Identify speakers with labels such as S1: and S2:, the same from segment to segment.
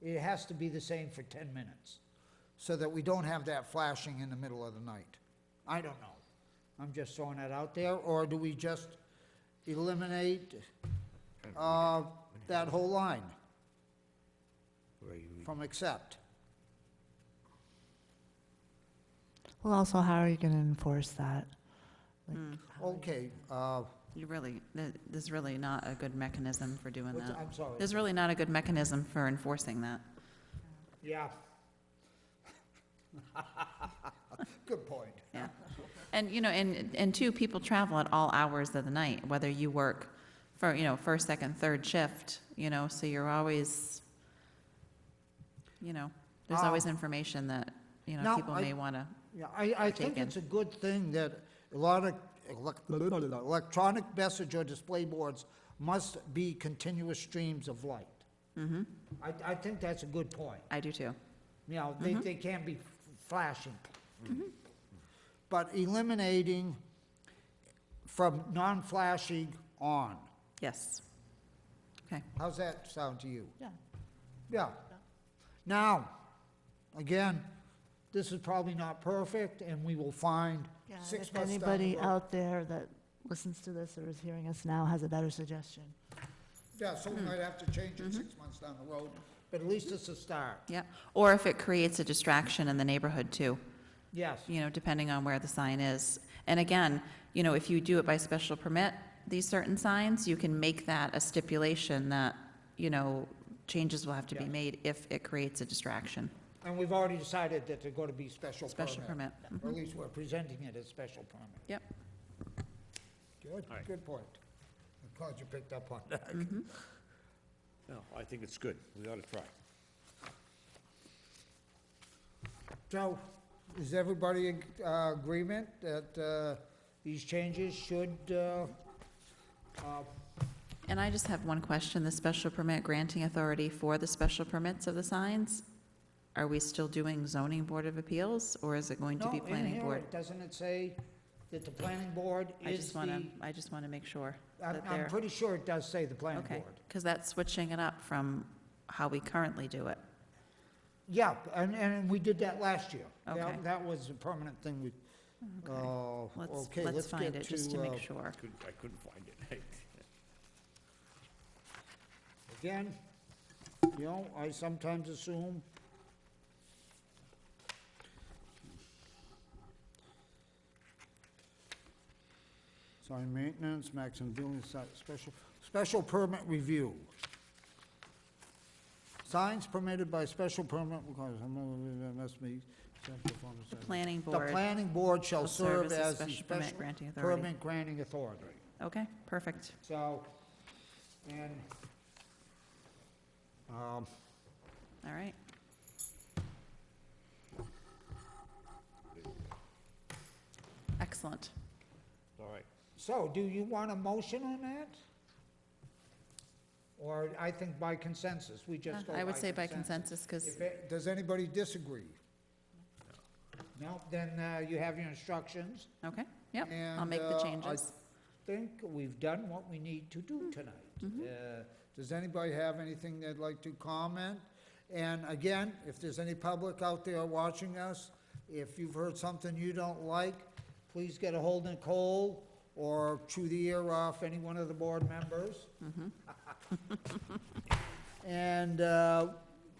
S1: it has to be the same for 10 minutes, so that we don't have that flashing in the middle of the night. I don't know. I'm just throwing that out there, or do we just eliminate uh, that whole line
S2: Where you read-
S1: from accept?
S3: Well, also, how are you going to enforce that? Like, how are you-
S1: Okay, uh,
S4: You really, there- there's really not a good mechanism for doing
S1: what's-
S4: that.
S1: I'm sorry.
S4: There's really not a good mechanism for enforcing that.
S1: Yeah. Good point.
S4: Yeah. And, you know, and, and two, people travel at all hours of the night, whether you work for, you know, first, second, third shift, you know, so you're always, you know, there's
S1: Ah.
S4: always information that, you know,
S1: No,
S4: people
S1: I-
S4: may want to,
S1: Yeah, I, I think
S4: taken.
S1: it's a good thing that a lot of elec- electronic message or display boards must be continuous streams of light. I, I think that's a good point.
S4: I do too.
S1: You know, they, they can't be flashing. But eliminating from non-flashing on,
S4: Yes. Okay.
S1: how's that sound to you?
S3: Yeah.
S1: Yeah. Now, again, this is probably not perfect, and we will find
S3: Yeah, and
S1: six
S3: If
S1: months down the
S3: anybody
S1: road.
S3: out there that listens to this or is hearing us now has a better suggestion.
S1: Yeah, so we
S4: Hmm.
S1: might have to change
S4: Mm-hmm.
S1: it six months down the road, but at least it's a start.
S4: Yeah. Or if it creates a distraction in the neighborhood too.
S1: Yes,
S4: you know, depending on where the sign is. And again, you know, if you do it by special permit, these certain signs, you can make that a stipulation that, you know, changes will have to be
S1: Yeah.
S4: made if it creates a distraction.
S1: and we've already decided that they're going to be special permit.
S4: Special permit. Mm-hmm.
S1: Or at least we're presenting it as special permit.
S4: Yep.
S1: Good,
S2: All right.
S1: good point. I'm glad you picked up on that.
S2: No, I think it's good. We ought to try.
S1: So, is everybody in uh, agreement that uh, these changes should, uh, uh,
S4: Mm-hmm. And I just have one question, the special permit granting authority for the special permits of the signs? Are we still doing zoning board of appeals or is it going to
S1: no,
S4: be
S1: in
S4: planning
S1: here,
S4: board?
S1: doesn't it say that the planning board
S4: I
S1: is
S4: just
S1: the?
S4: want to, I just want to make sure
S1: I'm-
S4: that
S1: I'm
S4: they're,
S1: pretty sure it does say the planning
S4: okay.
S1: board.
S4: Because that's switching it up from how we currently do it.
S1: Yeah, and, and we did that last year. That-
S4: Okay.
S1: That was a permanent thing we, uh,
S4: Let's,
S1: okay,
S4: let's
S1: let's
S4: find
S1: get
S4: it, just to
S1: to, uh,
S4: make sure.
S2: Couldn't, I couldn't find it.
S1: again, you know, I sometimes assume. Sign maintenance, maximum building site, special, special permit review. Signs permitted by special permit, because I'm, uh, must be.
S4: The planning
S1: The
S4: board,
S1: planning board shall
S4: will serve
S1: serve
S4: as the
S1: as the
S4: special permit
S1: special
S4: granting authority.
S1: permit granting authority.
S4: okay, perfect.
S1: So, and, um,
S4: All right, excellent.
S2: All right.
S1: so do you want a motion on that? Or I think by consensus, we just go
S4: I would
S1: by
S4: say by consensus, because,
S1: If it- Does anybody disagree? No, then uh, you have your instructions.
S4: okay, yep, I'll
S1: And,
S4: make
S1: uh,
S4: the
S1: I-
S4: changes. Mm-hmm.
S1: Think we've done what we need to do tonight. Uh, Does anybody have anything they'd like to comment? And again, if there's any public out there watching us, if you've heard something you don't like, please get a hold of Nicole or chew the ear off any one of the board members.
S4: Mm-hmm.
S1: And uh,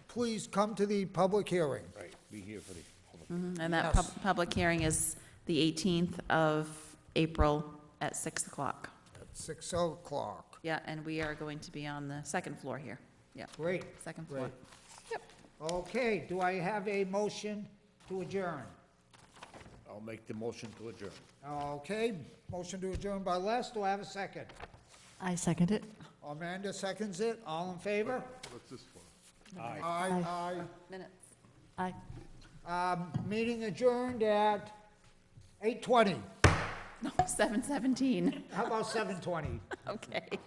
S1: please come to the public hearing.
S2: Right, be here for the public.
S4: Mhm, And that pub-
S1: yes.
S4: public hearing is the 18th of April at 6 o'clock.
S1: at six o'clock.
S4: Yeah, and we are going to be on the second floor here, yeah,
S1: Great.
S4: second floor.
S1: Great.
S4: Yep,
S1: Okay, do I have a motion to adjourn?
S2: I'll make the motion to adjourn.
S1: Okay, motion to adjourn by Les, do I have a second?
S3: I second it.
S1: Amanda seconds it, all in favor?
S2: Aye.
S1: Aye,
S4: minutes.
S3: I.
S1: aye. Um, meeting adjourned at eight twenty.
S4: No, 7:17,
S1: How about seven twenty?
S4: okay.